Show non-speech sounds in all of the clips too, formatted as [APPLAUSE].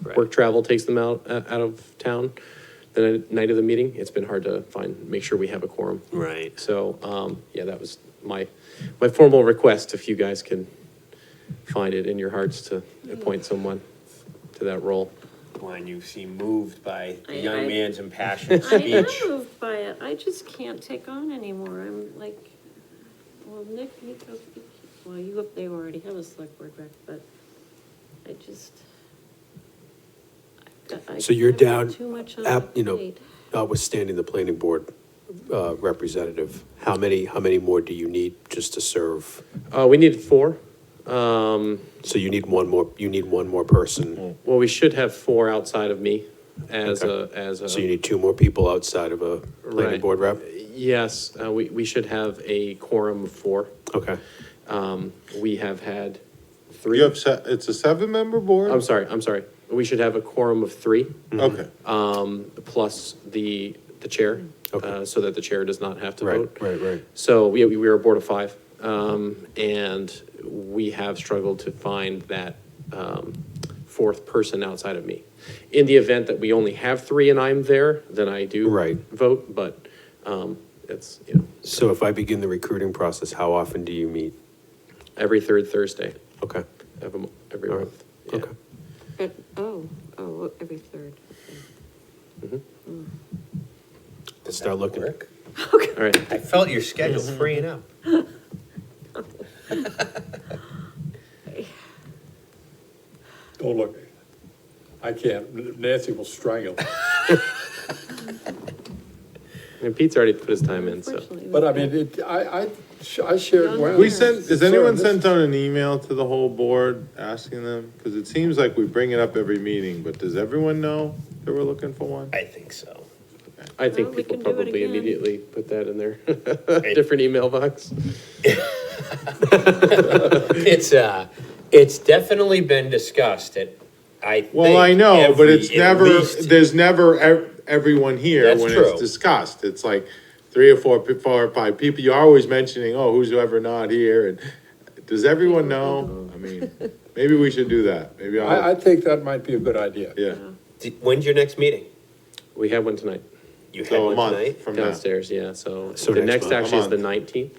Right. work travel takes them out, uh, out of town, the night of the meeting, it's been hard to find, make sure we have a quorum. Right. So, um, yeah, that was my, my formal request, if you guys can find it in your hearts to appoint someone to that role. When you seem moved by the I- young I- man's impassioned [LAUGHS] I am speech. moved by it, I just can't take on anymore, I'm like, well, Nick, you go, well, you, they already have a select board rep, but I just. I've got- I So you're I've got down, Too much on my app, you know, plate. notwithstanding the planning board uh, representative, how many, how many more do you need just to serve? Uh, we need four. Um, So you need one more, you need one more person, Well, we should have four outside of me as a, as a. so you need two more people outside of a Right. planning board rep? Yes, uh, we, we should have a quorum of four. Okay. We have had You three. have, se- it's a seven-member board? I'm sorry, I'm sorry. We should have a quorum of three, Okay, plus the, the chair, Okay. uh, so that the chair does not have to vote. Right, right, right. So we, we were a board of five, um, and we have struggled to find that, um, fourth person outside of me. In the event that we only have three and I'm there, then I do. Right. Vote, but, um, it's, you know, So if I begin the recruiting process, how often do you meet? every third Thursday Okay, of a, mo- every All right. month. Yeah. okay. But, oh, oh, every third. Let's start looking. Work. All right, I felt your schedule freeing up. Don't look. I can't. Nancy will strangle. and Pete's already put his time in, so. Unfortunately, we But I can't. mean, it, I, I, sh- I shared. well. we sent, has Sorry, anyone this- sent out an email to the whole board asking them? Because it seems like we bring it up every meeting, but does everyone know that we're looking for one? I think so. I Well, think we people can do it probably again. immediately put that in their [LAUGHS] different email box. [LAUGHS] It's, uh, it's definitely been discussed at, I think. Well, I know, but every- it's at never, least- there's never ev- everyone here That's when true. it's discussed. It's like three or four, pe- four or five people. You're always mentioning, oh, who's ever not here? And does everyone know? I mean, maybe we should do that. Maybe I, I I'll, think that might be a good idea. yeah. D- When's your next meeting? We had one tonight You had So Oh, a one month tonight? from now. downstairs, yeah, so So the next next month. actually is A the month. nineteenth.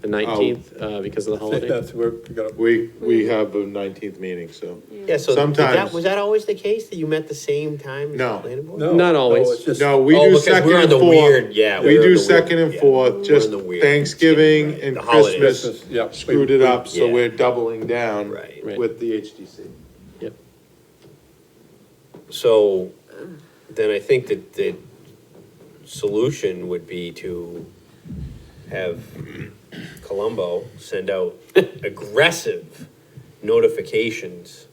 The nineteenth, uh, because of the I think holiday. that's where we gotta. We, we have a nineteenth meeting, so. Yeah, so did that, Sometimes. was that always the case that you met the same time? as No. the planning board? No, Not no, always. it's just- No, we Oh, do because second we're in and the fourth. weird- yeah, we're We in the do weird- second and yeah. We're in fourth, just the weird. Thanksgiving Right. and The holidays. Christmas Christmas, yeah, we- screwed it up, so yeah. we're doubling down Right. Right. with the HDC. Yep. So then I think that the solution would be to have Colombo send [LAUGHS] out aggressive notifications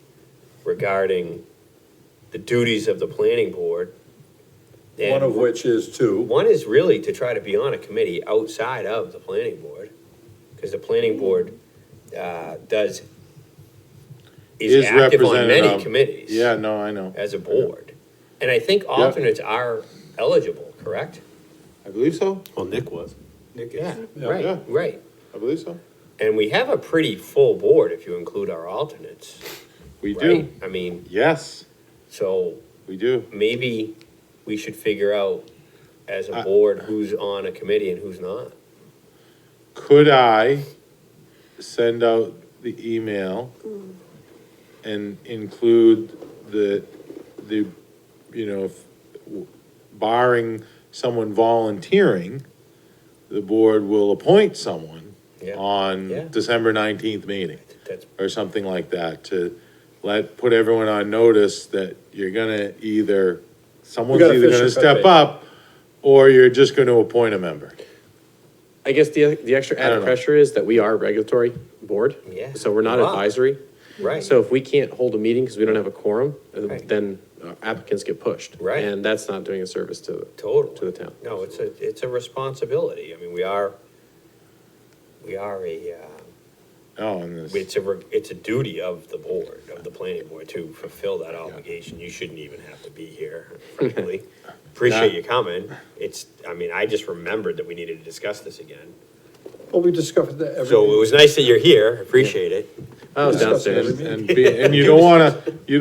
regarding the duties of the planning board. One of And which is two. one is really to try to be on a committee outside of the planning board, because the planning board, uh, does, is Is active on represented many on- committees Yeah, no, I know. as a board. And I think alternates are eligible, correct? I believe so. Well, Nick was. Nick Yeah, Yeah. Yeah. right, right. I believe so. And we have a pretty full board if you include our alternates, We do. right? I mean, Yes, so we do. maybe we should figure out as a I- board who's on a committee and who's not. Could I send out the email Mm. and include the, the, you know, if- barring someone volunteering, the board will appoint someone Yeah. Yeah. on December nineteenth meeting That's, or something like that to let, put everyone on notice that you're gonna either, someone's gotta either fish gonna and cut step bait. up or you're just gonna appoint a member. I guess the, the extra I don't added know. pressure is that we are a regulatory board. Yeah. So we're not Wow. advisory. right. So if we can't hold a meeting because we don't have a quorum, uh, Right. then applicants get pushed. Right. And that's not doing a service to, oh, Total. to the town. No, it's a, it's a responsibility. I mean, we are, we are a, uh, Oh, and this. It's a, re- it's a duty of the board, of the planning board to fulfill that obligation. You shouldn't even have to be here, frankly. Appreciate you coming. It's, I mean, I just remembered that we needed to discuss this again. Well, we discovered that every. So it was nice that you're here. Appreciate it. Oh, Discuss it downstairs. every meeting. and, be, and you don't want to you